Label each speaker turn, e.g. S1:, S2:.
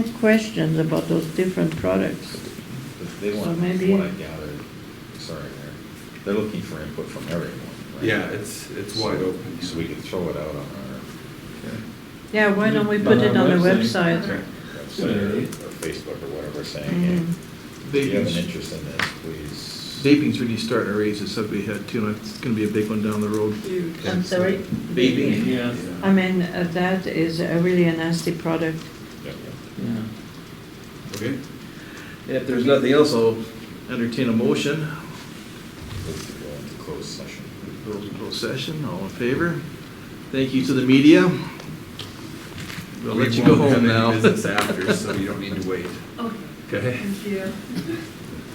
S1: questions about those different products.
S2: But They
S1: So
S2: want,
S1: maybe-
S2: from what I gathered, sorry, Mayor, they're looking for input from everyone, right?
S3: Yeah, it's, it's wide
S2: So-
S3: open.
S2: So we can throw it out on our
S1: Yeah, why don't we put it on the website?
S3: Right.
S2: website or or Facebook or whatever, saying, hey,
S1: Mm.
S2: if you have an
S4: Vaping's-
S2: interest in this, please.
S4: Vaping's really starting to raise its ugly head too, and it's gonna be a big one down the road.
S1: I'm sorry?
S4: Vaping,
S5: Yeah.
S1: I mean, uh, that is a really a nasty product.
S2: Yep.
S4: Yeah.
S3: Okay,
S4: If there's nothing else, I'll entertain a motion.
S2: Let's go into closed session.
S4: Those in closed session, all in favor? Thank you to the media. We'll let
S3: We
S4: you go
S3: won't have
S4: home
S3: any
S4: now.
S3: Business after, so you don't need to wait,
S6: Okay,
S3: okay?
S6: thank you.